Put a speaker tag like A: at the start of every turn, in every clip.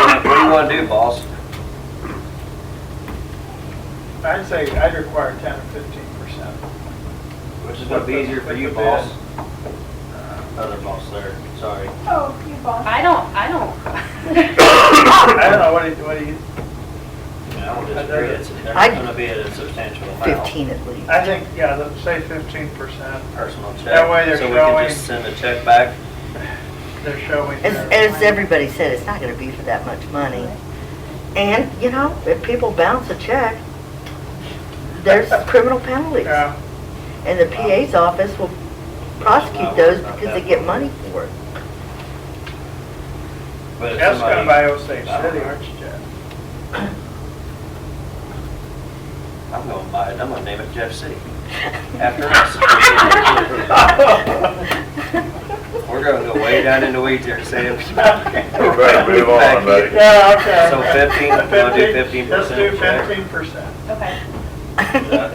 A: want to do, boss?
B: I'd say I'd require ten or fifteen percent.
A: Which is gonna be easier for you, boss? Uh, Other boss there, sorry.
C: Oh, you boss.
D: I don't, I don't.
B: I don't know, what do you, what do you,
A: I don't disagree, it's, there's
E: I'd-
A: gonna be a substantial amount.
E: Fifteen at least.
B: I think, yeah, let's say fifteen percent,
A: Personal check.
B: That way they're
A: So we can
B: showing-
A: just send a check back.
B: they're showing.
E: As,
B: their-
E: as everybody said, it's not gonna be for that much money. And, you know, if people bounce a check, there's criminal penalties.
B: Yeah,
E: And the PA's office will prosecute those because they get money for it.
A: But if
B: that's
A: somebody,
B: done by Osage City,
A: I don't know.
B: aren't you, Jeff?
A: I'm gonna buy it, I'm gonna name it Jeff City. After us. We're gonna go way down in the weeds here, Sam.
F: We're ready to move on, buddy.
B: Yeah, okay.
A: So 15, we'll do 15%,
B: Let's do
A: Jack.
B: fifteen percent.
D: Okay.
B: And
D: And then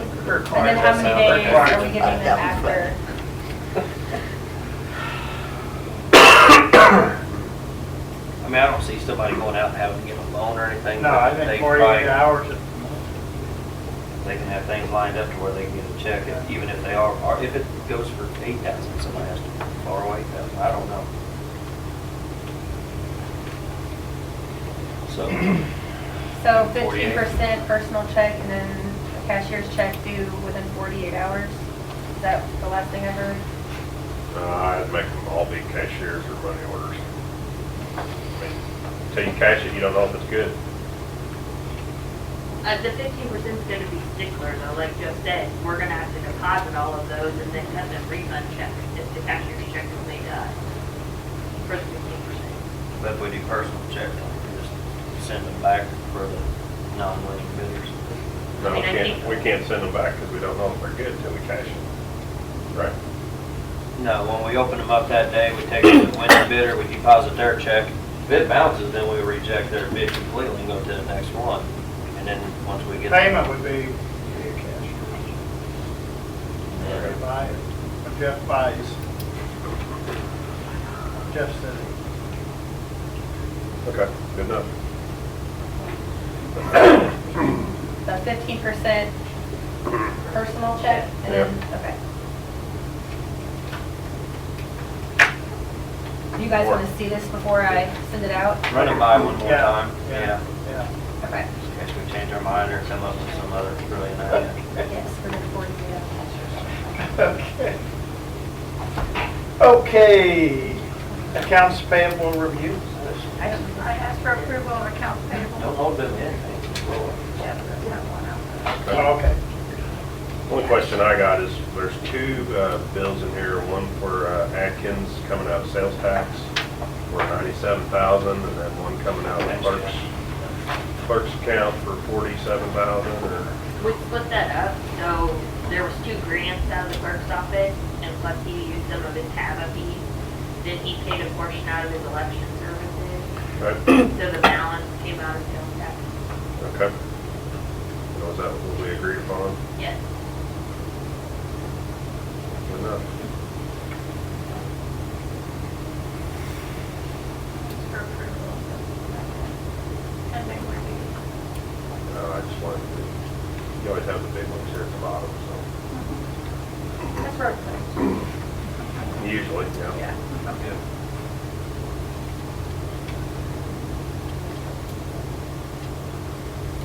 D: how many days are we giving them
E: That was
D: after?
A: I mean, I don't see somebody going out and having to get a loan or anything.
B: No,
A: but
B: I
A: they
B: think
A: probably-
B: forty-eight hours, is-
A: They can have things lined up to where they can get a check, if- even if they are, or if it goes for eight thousand, somebody has to borrow eight thousand, I don't know. So,
D: So
A: 48.
D: fifteen percent personal check and then a cashier's check due within forty-eight hours? Is that the last thing I heard?
F: Uh, I'd make them all be cashiers or money orders. I mean, Till you cash it, you don't know if it's good.
G: Uh, the fifteen percent's gonna be stickler though, like Joe said, we're gonna have to deposit all of those and then cut the refund check if the cashier's check is made up for the fifteen percent.
A: but if we do personal check, then we can just send them back for the non-winning bidders.
F: No, we
G: I mean, I
F: can't,
G: think-
F: we can't send them back because we don't know if they're good until we cash it. Right?
A: No, when we open them up that day, we take the winning bidder, we deposit their check. If it bounces, then we reject their bid completely and go to the next one. And then, once we get.
B: payment would be via cash. They're gonna buy it, If Jeff buys. Jeff City.
F: Okay, good enough.
D: So fifteen percent personal check and then, okay. Do you guys want to see this before I send it out?
A: Run it by one more
B: Yeah,
A: time, yeah.
B: Yeah.
D: Okay.
A: In case we change our mind or come up with some other brilliant idea.
D: Yes, for the forty-eight hours.
B: Okay. Okay, accounts payable review.
C: I asked for approval of accounts payable.
A: Don't hold them in.
C: Jeff doesn't have one out.
B: Oh, Okay.
F: Only question I got is, there's two uh, bills in here, one for uh, Atkins coming out of sales tax for ninety-seven thousand, and then one coming out of clerk's, clerk's account for forty-seven thousand, or,
G: We split that up, so there was two grants out of the clerk's office, and plus he used some of his TABA fees. Then he paid a portion out of his election services,
F: right?
G: so the balance came out of sales tax.
F: Okay. And Was that what we agreed upon?
G: Yes.
F: Good enough.
C: For approval. I think we're good.
F: No, Uh, I just wanted to, you always have the big ones here at the bottom, so,
C: That's road frontage.
F: usually, yeah.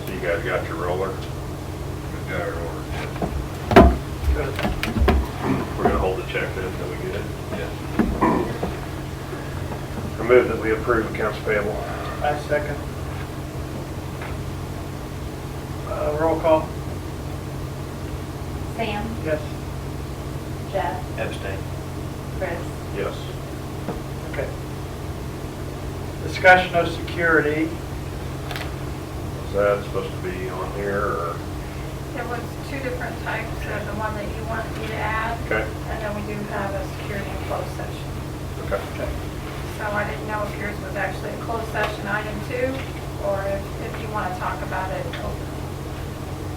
F: So you guys got your roller? We got our roller. We're gonna hold the check then until we get it? Yeah. I move that we approve accounts payable.
B: I second. Uh, Roll call,
D: Sam,
B: yes.
D: Jeff,
A: Epstein.
D: Chris.
F: Yes.
B: Okay. Discussion of security.
F: Is that supposed to be on here or,
C: There was two different types, so the one that you want me to add,
F: okay,
C: and then we do have a security and closed session.
F: okay.
C: So I didn't know if yours was actually a closed session item two, or if, if you want to talk about it open.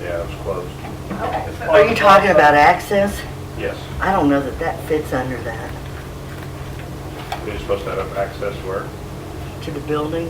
F: Yeah, it was closed.
C: Okay. so-
E: Are you talking about access?
F: Yes.
E: I don't know that that fits under that,
F: We're supposed to have access where?
E: to the building.